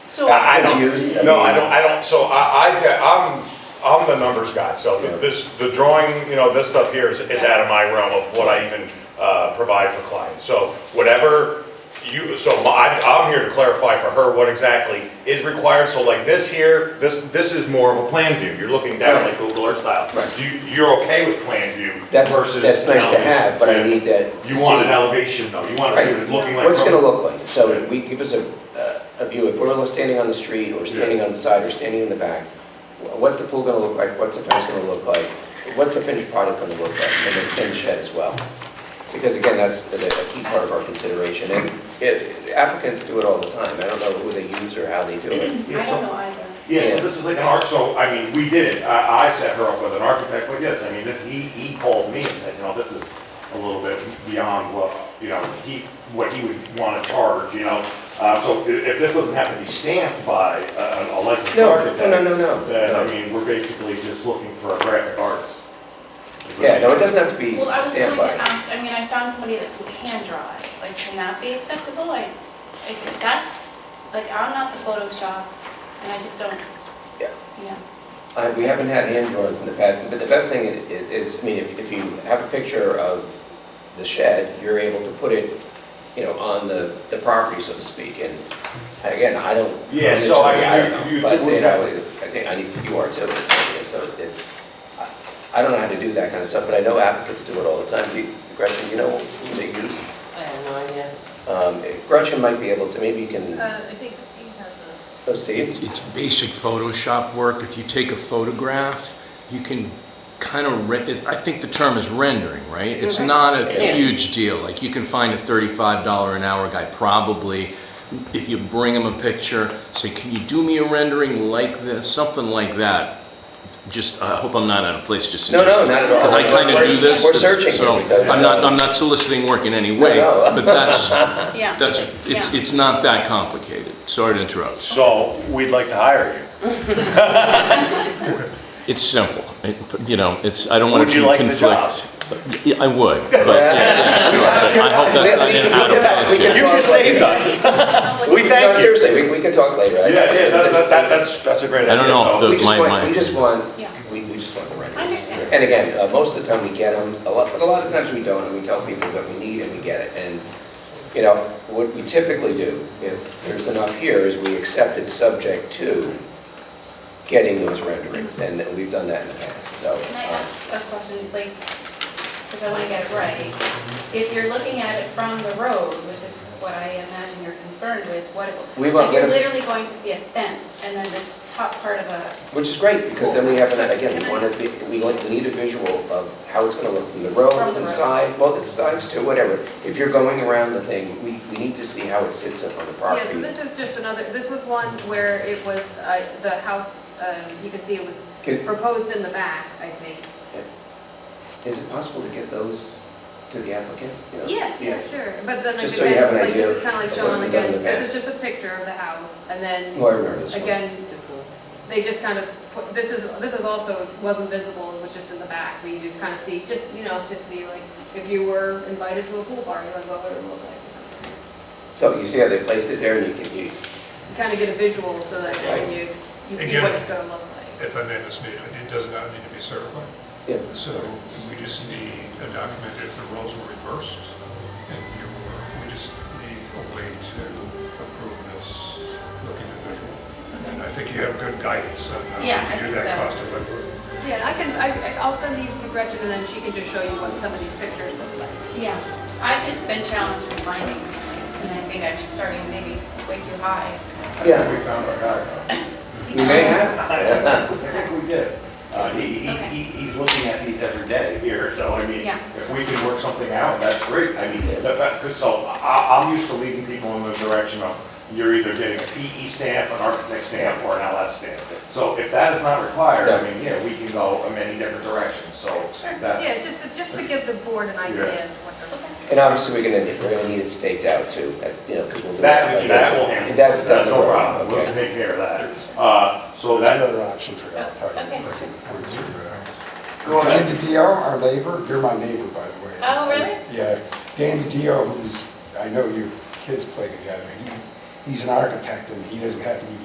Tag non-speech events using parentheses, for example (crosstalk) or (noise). still. I I It's used, I don't, no, I mean- don't, I don't, so I, I, I'm, I'm the numbers guy, so this, the drawing, you know, this stuff here is, is out of my realm of what I even, uh, provide for clients. So whatever you, so my- I, I'm here to clarify for her what exactly is required, so like this here, this, this is more of a plan view, you're looking down like Google Earth style. You, you're okay with plan view That's, versus. that's nice to elevation. have, but I need to. to You want see- an elevation though, you want to see what it's looking like. What's it from- gonna look like? So we, give us a, uh, a view, if we're standing on the street, or standing on the side, or standing in the back, wh- what's the pool gonna look like, what's the fence gonna look like, what's the finished product gonna look like, and the finished shed as well? Because again, that's the- a key part of our consideration, and if, applicants do it all the time, I don't know who they use or how they do I it. don't know either. Yeah, so this is like an arch, so, I mean, we did it, I, I set her up with an architect, but yes, I mean, that he, he called me and said, you know, this is a little bit beyond what, you know, he, what he would wanna charge, you know? Uh, so i- if this doesn't have to be stamped by a, a licensed No, architect. no, no, no, Then, I no. mean, we're basically just looking for a graphic artist. Yeah, no, it doesn't have to be Well, I was going to standby. ask, I mean, I found somebody that can hand draw it, like, can that be acceptable? Like, if that's, like, I'm not the Photoshop, and I just don't, Yeah. yeah. I- Uh, We haven't had hand drawings in the past, but the best thing is, is, I mean, if if you have a picture of the shed, you're able to put it, you know, on the, the property, so to speak, and again, I don't. Yeah, so I mean, don't you- you- know, But, you know, I think, I need, you are too, you know, so it's, I- I don't know how to do that kind of stuff, but I know applicants do it all the time. Do you- Gretchen, you know who they use? I have no idea. Um, Gretchen might be able to, maybe you can, Uh, I think Steve has a. oh, Steve? It's basic Photoshop work. If you take a photograph, you can kind of, re- I think the term is rendering, right? It's not a Yeah. huge deal. Like, you can find a $35 an hour guy probably, if you bring him a picture, say, can you do me a rendering like this? Something like that. Just, I hope I'm not out of place just No, no, suggesting. not at all. Because I kind of do this. We're searching So, here because, I'm not, uh, I'm not soliciting work in any way, no. (laughs) but that's, Yeah. that's, it's, Yeah. it's not that complicated. Sorry to interrupt. So, we'd like to hire you. It's simple, It- you know, it's, I don't want Would to you conflict. like the job? Yeah, I would, but, yeah, yeah, sure, but I hope that's not We- we an can out look at that. of We place can here. You just saved (laughs) us. We Like, No, thank you. Seriously, we, we can talk later. I- Yeah, yeah, that, that- that, that's, that's a great idea. I don't know if so- the- We just my- want, my- we just want, Yeah. we, we just want the right I answers. understand. And again, uh, most of the time we get them, a lot, but a lot of times we don't, and we tell people what we need and we get it. And, you know, what we typically do, if there's enough here, is we accept it subject to getting those renderings, and we've done that in the past, so. Can I uh, ask a question, like, because I want to get it right? If you're looking at it from the road, which is what I imagine you're concerned with, what, We it- won't like, you're get it. literally going to see a fence, and then the top part of a, Which is great, because then we have, an again, Can we I- want to, we like, we need a visual of how it's gonna look from the road, From the from the road. side, well, the sides too, whatever. If you're going around the thing, we, we need to see how it sits up on the property. Yeah, so this is just another, this was one where it was, uh, the house, um, you can see it was Can- proposed in the back, I think. Is it possible to get those to the applicant? You know? Yeah, yeah, sure, but then like Just so you have an again, like idea this is kind of like of what's showing been done in again, the this is just a picture of the house, and then, Oh, I remember this one. again, they just kind of, put this is, this is also, wasn't visible, it was just in the back, we just kind of see, just, you know, just see like, if you were invited to a pool party, like what would it look like? So you see how they placed it there and you can, you, Kind of get a visual so that when you, you see Again. what it's gonna look like. If I may, Mr. Mayor, it does not need to be certified. Yeah. So we just need a document if the roles were reversed, and you, we just need a way to approve this looking individual. And I think you have good guidance on how Yeah, I to do think Uh, that so. cost effectively. Yeah, I can, I, I'll send these to Gretchen and then she can just show you what some of these pictures look like. yeah. I've just been challenged with findings, and I think I'm starting maybe way too high. yeah, We found our guy. you may have. I think we did. Uh, he, he, Okay. he- he's looking at these every day here, so I mean, Yeah. if we can work something out, that's great. I mean, that, that, 'cause so I, I'm used to leading people in the direction of you're either getting a PE stamp, an architect stamp, or an LS stamp. So if that is not required, I mean, yeah, we can go in many different directions, so Yeah, it's that's, just, to- just to give the board an idea of what they're looking And obviously, we're gonna, we're gonna need it staked out too, that- you know, because we'll do. that, it. that will handle. That's done. no problem. We'll Okay. take care of that. Uh, so that, other option for that, I'll tell you in a second. go ahead. Dan DiDio, our neighbor, you're my neighbor, by the way. Oh, really? Yeah, Dan DiDio, who's, I know your kids play together, he, he's an architect, and he doesn't have to be